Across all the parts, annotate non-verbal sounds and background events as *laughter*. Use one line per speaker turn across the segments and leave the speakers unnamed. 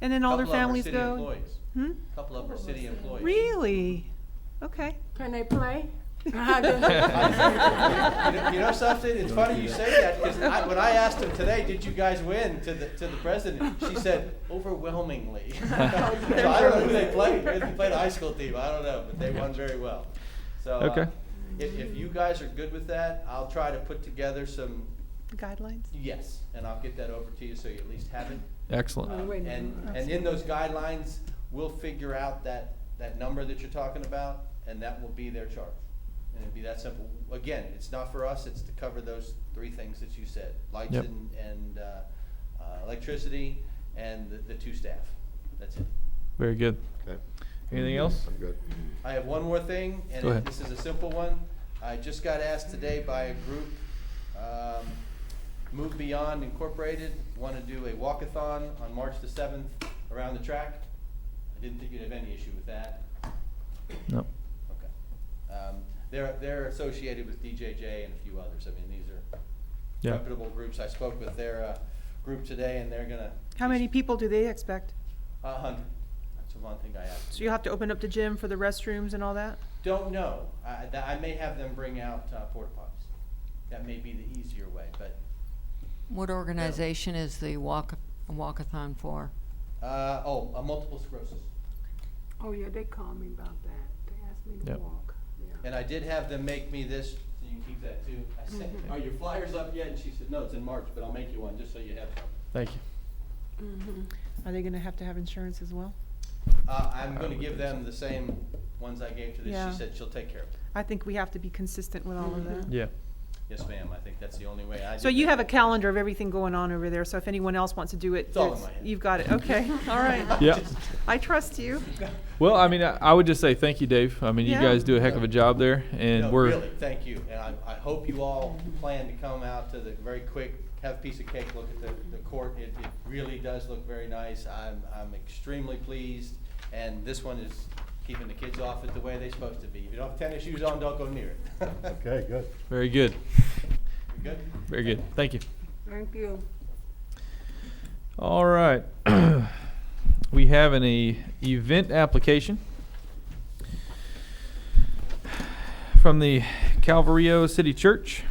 And then all their families
Couple of them
go?
are city employees.
Hmm?
Couple of them are city employees.
Really? Okay.
Can they play?
You know- You *laughs* know something? It's funny you say that, because I, when I asked him today, did you guys win to the, to the president? She said overwhelmingly. *laughs* So I don't know who they played, they played a high school team, I don't know, but they won very well. So, uh,
Okay.
if, if you guys are good with that, I'll try to put together some
Guidelines?
yes, and I'll get that over to you so you at least have it.
Oh,
Excellent.
wait a minute. Oh,
And, and in those guidelines, we'll figure out that, that number that you're talking about, and that will be their charge. And it'd be that simple. Again, it's not for us, it's to cover those three things that you said, lights
Yep.
and, and, uh, uh, electricity, and the, the two staff. That's it.
Very good.
Okay,
Anything else?
I'm good.
I have one more thing,
Go
and
ahead.
this is a simple one. I just got asked today by a group, um, Move Beyond Incorporated, want to do a walkathon on March the seventh around the track. I didn't think you'd have any issue with that.
No.
Okay. Um, They're, they're associated with DJJ and a few others. I mean, these are
Yeah.
reputable groups. I spoke with their uh, group today, and they're gonna.
How many people do they expect?
A hundred. That's the one thing I asked.
So you'll have to open up the gym for the restrooms and all that?
Don't know. I, that- I may have them bring out uh, porta potties. That may be the easier way, but
What organization is the walk, walkathon for?
uh, oh, a multiple sclerosis.
Oh, yeah, they called me about that. They asked me to
Yep.
walk, yeah.
And I did have them make me this. Mm-hmm. So you keep that too. I said, "Are your flyers up yet?" And she said, "No, it's in March, but I'll make you one just so you have." Some.
Thank you.
Are they gonna have to have insurance as well?
Uh, I'm
I
going to
would
give
think
them the same ones I gave to this.
Yeah.
She said she'll take care of it.
I think we have to be consistent with all of that.
Yeah.
Yes, ma'am. I think that's the only way. I
So
did
you
that.
have a calendar of everything going on over there, so if anyone else wants to do it,
It's all in
it's-
my head.
you've got it,
*laughs*
okay, all right.
Yeah.
I trust *laughs* you.
Well, I mean, I, I would just say thank you, Dave. I mean, you
Yeah.
guys do a heck of a job there, and
No,
we're
really thank you, and I, I hope you all plan to come out to the very quick, have a piece of cake, look at the, the court. It, it really does look very nice. I'm, I'm extremely pleased, and this one is keeping the kids off it the way they're supposed to be. If you don't have tennis shoes on, don't go near it. *laughs*
Okay, good.
very good.
We Good.
Very good. Thank you.
Thank you.
All right. *clears throat* we have an e- event application from the Calvario City Church.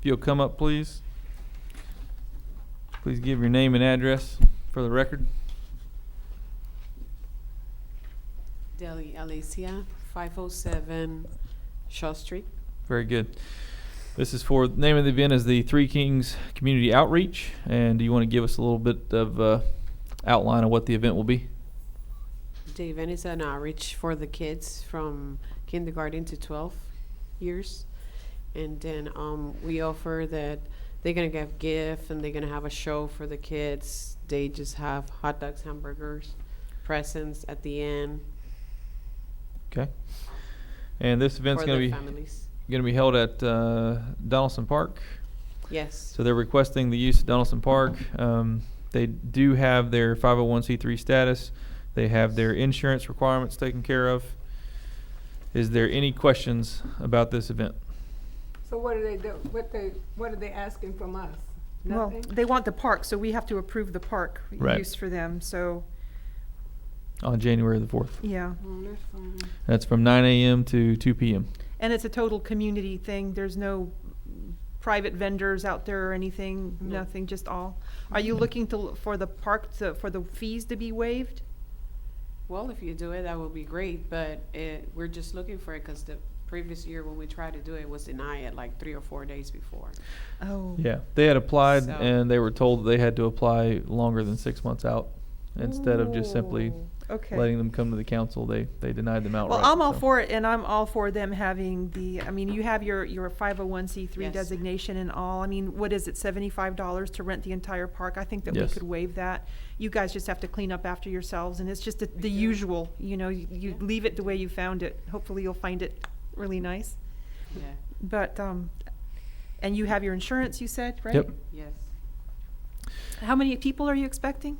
If you'll come up, please. Please give your name and address for the record.
Deli Alicia, 507 Shaw Street.
Very good. This is for the name of the event is the Three Kings Community Outreach. And do you want to give us a little bit of uh, outline of what the event will be?
The event is an outreach for the kids from kindergarten to 12 years. And then um, we offer that they're going to get gift and they're going to have a show for the kids. They just have hot dogs, hamburgers, presents at the end
Okay. And this event's
for
going to
their
be
families.
going to be held at uh, Donaldson Park.
Yes.
So they're requesting the use of Donaldson Park. Um, they do have their 501c3 status. They have their insurance requirements taken care of. Is there any questions about this event?
So what do they do, what they, what are they asking from us?
Well,
Nothing?
they want the park, so we have to approve the park
Right.
use for them, so,
On January the 4th.
yeah.
Oh, that's fine.
That's from 9 a.m. to 2 p.m.
And it's a total community thing, there's no private vendors out there or anything,
No.
nothing, just all? Are you looking to, for the park, to- for the fees to be waived?
Well, if you do it, that would be great, but it, we're just looking for it because the previous year when we tried to do it was denied like three or four days before.
Oh.
Yeah, they had applied
So-
and they were told that they had to apply longer than six months out instead of just simply
Ooh, okay.
letting them come to the council. They they denied them outright.
Well, I'm all
so.
for it, and I'm all for them having the, I mean, you have your, your five oh one C three
Yes.
designation and all. I mean, what is it, seventy-five dollars to rent the entire park? I think that we
Yes.
could waive that. You guys just have to clean up after yourselves, and it's just the- the usual, you know, you- you
Yeah.
leave it the way you found it. Hopefully, you'll find it really nice.
Yeah,
But, um, and you have your insurance, you said, right?
Yep.
yes.
How many people are you expecting?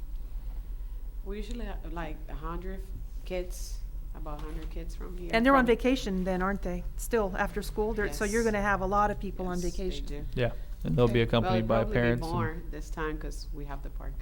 We usually have like a hundred kids, about a hundred kids from here.
And they're on
from-
vacation then, aren't they? Still, after school, they're, so you're
Yes.
gonna have a lot of people on
Yes, they
vacation.
do.
Yeah, and they'll
Okay.
be
Well,
Well,
accompanied
it'd
by
probably be
parents. and-
More this time because we have the park.